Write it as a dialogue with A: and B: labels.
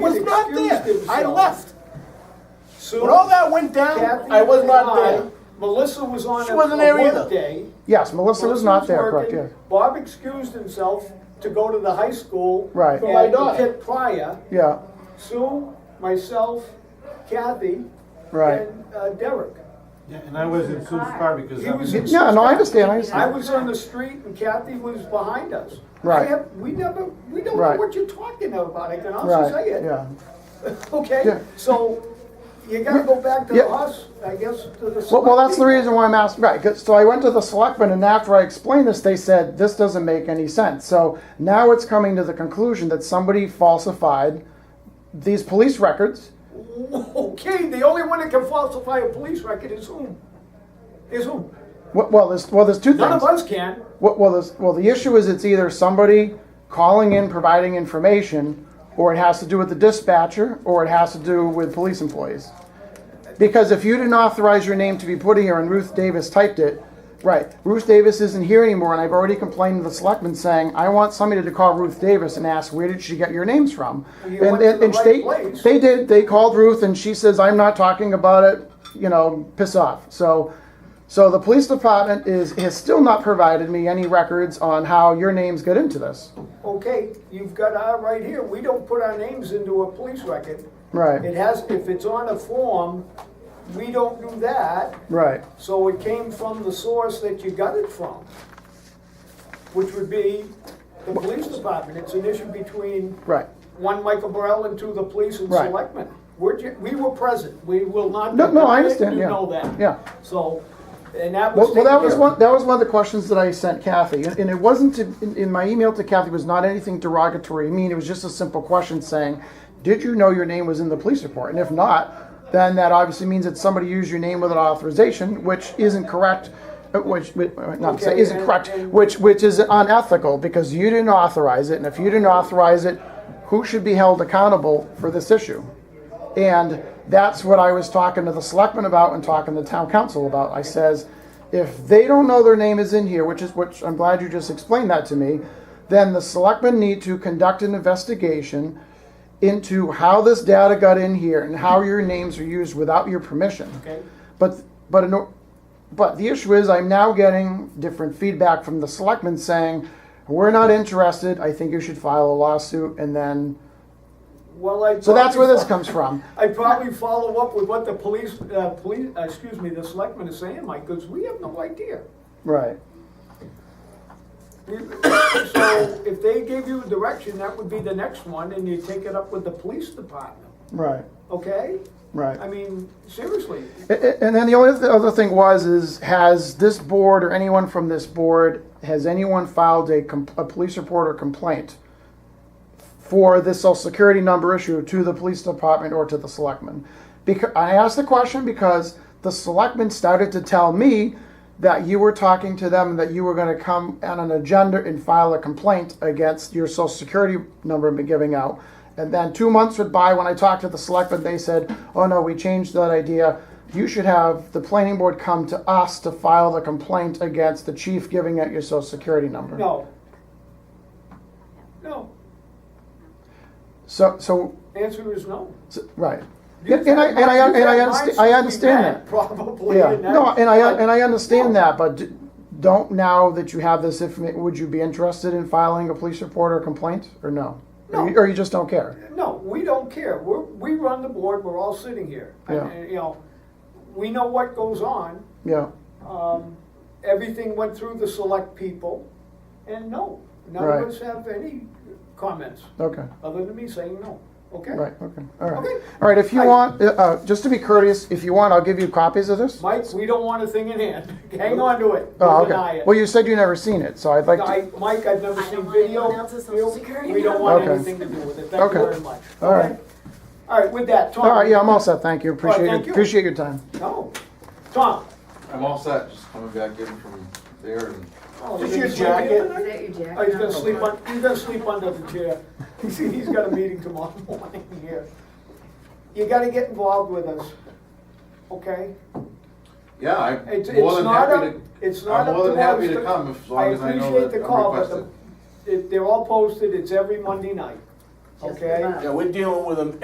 A: was not
B: excused
A: there. I
B: himself.
A: left.
B: Sue,
A: When all that went down,
B: Kathy
A: I was not
B: and I-
A: there.
B: Melissa was on
A: She
B: a
A: wasn't there
B: a work
A: either.
B: day.
C: Yes, Melissa was not there, correct, yeah.
B: working. Bob excused himself to go to the high school.
C: Right.
B: For
C: For
A: my
B: my
A: daughter.
B: prior,
C: Yeah,
B: Sue, myself, Kathy.
C: Right.
B: And uh, Derek.
D: Yeah, And I was in Sue's car because
B: He
D: I
B: was
D: was.
B: in
C: Yeah, no, I
B: Sue's-
C: understand, I
B: I
C: understand.
B: was on the street and Kathy was behind us.
C: Right.
B: I have- We never, we don't know
C: Right.
B: what you're talking about, I can honestly
C: right,
B: say it.
C: yeah.
B: Okay,
C: Yeah.
B: so you gotta go back to
C: Yeah.
B: us, I guess, to the.
C: Well, well, that's the
B: selectmen.
C: reason why I'm asking, right, 'cause- so I went to the selectmen, and after I explained this, they said, this doesn't make any sense. So now it's coming to the conclusion that somebody falsified these police records.
B: Oh, Okay, the only one that can falsify a police record is whom? Is whom?
C: Well, well, there's, well, there's two things.
B: None of us can.
C: Well, well, this, well, the issue is it's either somebody calling in providing information, or it has to do with the dispatcher, or it has to do with police employees. Because if you didn't authorize your name to be put here and Ruth Davis typed it, right, Ruth Davis isn't here anymore, and I've already complained to the selectmen saying, I want somebody to call Ruth Davis and ask, where did she get your names from?
B: Well, you
C: And,
B: went to
C: and,
B: the
C: and
B: right
C: they,
B: place.
C: they did, they called Ruth, and she says, I'm not talking about it, you know, piss off. So, so the police department is, has still not provided me any records on how your names get into this.
B: Okay, you've got our right here, we don't put our names into a police record. It
C: Right,
B: has, if it's on a form, we don't do that,
C: right,
B: so it came from the source that you got it from. Which would be the police department, it's an issue between
C: right.
B: one Michael Burrell and two the police and
C: Right.
B: selectmen. We're, ju- we were present, we will not.
C: No, no,
B: deny
C: I
B: it.
C: understand,
B: You
C: yeah.
B: know that.
C: Yeah.
B: So, and that was
C: Well, well,
B: taken
C: that was
B: care
C: one.
B: of.
C: That was one of the questions that I sent Kathy, and, and it wasn't to, in, in my email to Kathy was not anything derogatory. I mean, it was just a simple question saying, "Did you know your name was in the police report?" And if not, then that obviously means that somebody used your name without authorization, which isn't correct. uh, Which, which not to say
B: Okay,
C: isn't
B: and-
C: correct,
B: and-
C: which which is unethical because you didn't authorize it, and if you didn't authorize it, who should be held accountable for this issue? And that's what I was talking to the selectmen about and talking to the town council about. I says, if they don't know their name is in here, which is, which I'm glad you just explained that to me, then the selectmen need to conduct an investigation into how this data got in here and how your names are used without your permission.
B: Okay.
C: But, but, in or- but the issue is, I'm now getting different feedback from the selectmen saying, we're not interested, I think you should file a lawsuit, and then,
B: Well, I.
C: so that's where this
B: probably-
C: comes from.
B: I probably follow up with what the police, uh, police, uh, excuse me, the selectmen is saying, Mike, because we have no idea.
C: Right.
B: We- So if they gave you a direction, that would be the next one, and you take it up with the police department,
C: Right,
B: okay?
C: right.
B: I mean, seriously,
C: A- a- And then the only th- other thing was is has this board or anyone from this board has anyone filed a, com- a police report or complaint for this social security number issue to the police department or to the selectmen? Because I asked the question because the selectmen started to tell me that you were talking to them and that you were going to come on an agenda and file a complaint against your social security number been giving out. And then two months went by when I talked to the selectmen, they said, oh no, we changed that idea. You should have the planning board come to us to file the complaint against the chief giving out your social security number.
B: no. No,
C: So, so,
B: answer is no.
C: so- right.
B: You
C: And and I, and I,
B: said-
C: and I
B: you
C: understand,
B: said
C: I
B: mine
C: understand
B: should
C: that.
B: be red, Probably.
C: Yeah,
B: and that-
C: no, and I,
B: but-
C: and I understand that, but d- don't now that you have this informa- would you be interested in filing a police report or complaint, or no? Or you-
B: No.
C: Or you just don't care?
B: No, we don't care. We're, we run the board, we're all sitting here. And,
C: Yeah.
B: and, You know, we know what goes on.
C: Yeah,
B: Um, everything went through the select people, and no, none
C: Right.
B: of us have any comments
C: okay,
B: other than me saying no. Okay?
C: right, okay, all right.
B: Okay.
C: All right, if you
B: I-
C: want, uh, uh, just to be courteous, if you want, I'll give you copies of this.
B: Mike, we don't want a thing in hand. Hang on to it. We'll
C: Oh,
B: deny
C: okay.
B: it.
C: Well, you said you never seen it, so I'd like to,
B: I, Mike, I've never
E: I don't
B: seen
E: want
B: video.
E: anyone else's social security
B: We don't want
C: number.
B: anything to do with it. Thank you
C: Okay.
B: very much.
C: All right.
B: Okay? All right, with that, Tom.
C: all right, yeah, I'm all set, thank you,
B: right,
C: appreciate,
B: thank
C: it.
B: you.
C: appreciate your time.
B: No. Tom.
F: I'm all set, just coming back in from there and.
B: Oh,
E: Is
B: you
E: your
B: didn't sleep in
E: Is
B: tonight?
E: that your jacket?
B: Oh, he's gonna sleep on, he's gonna sleep under the chair. He's, he's got a meeting tomorrow morning here. You gotta get involved with us, okay?
F: Yeah, I'm
B: It's, it's
F: more than
B: not
F: happy
B: up,
F: to,
B: it's not
F: I'm
B: up
F: more
B: to
F: than happy
B: us
F: to come as long as I know
B: appreciate the
F: that I'm
B: call, but the-
F: requested.
B: it- They're all posted, it's every Monday night,
E: Just
B: okay?
E: about.
G: Yeah, we're dealing with them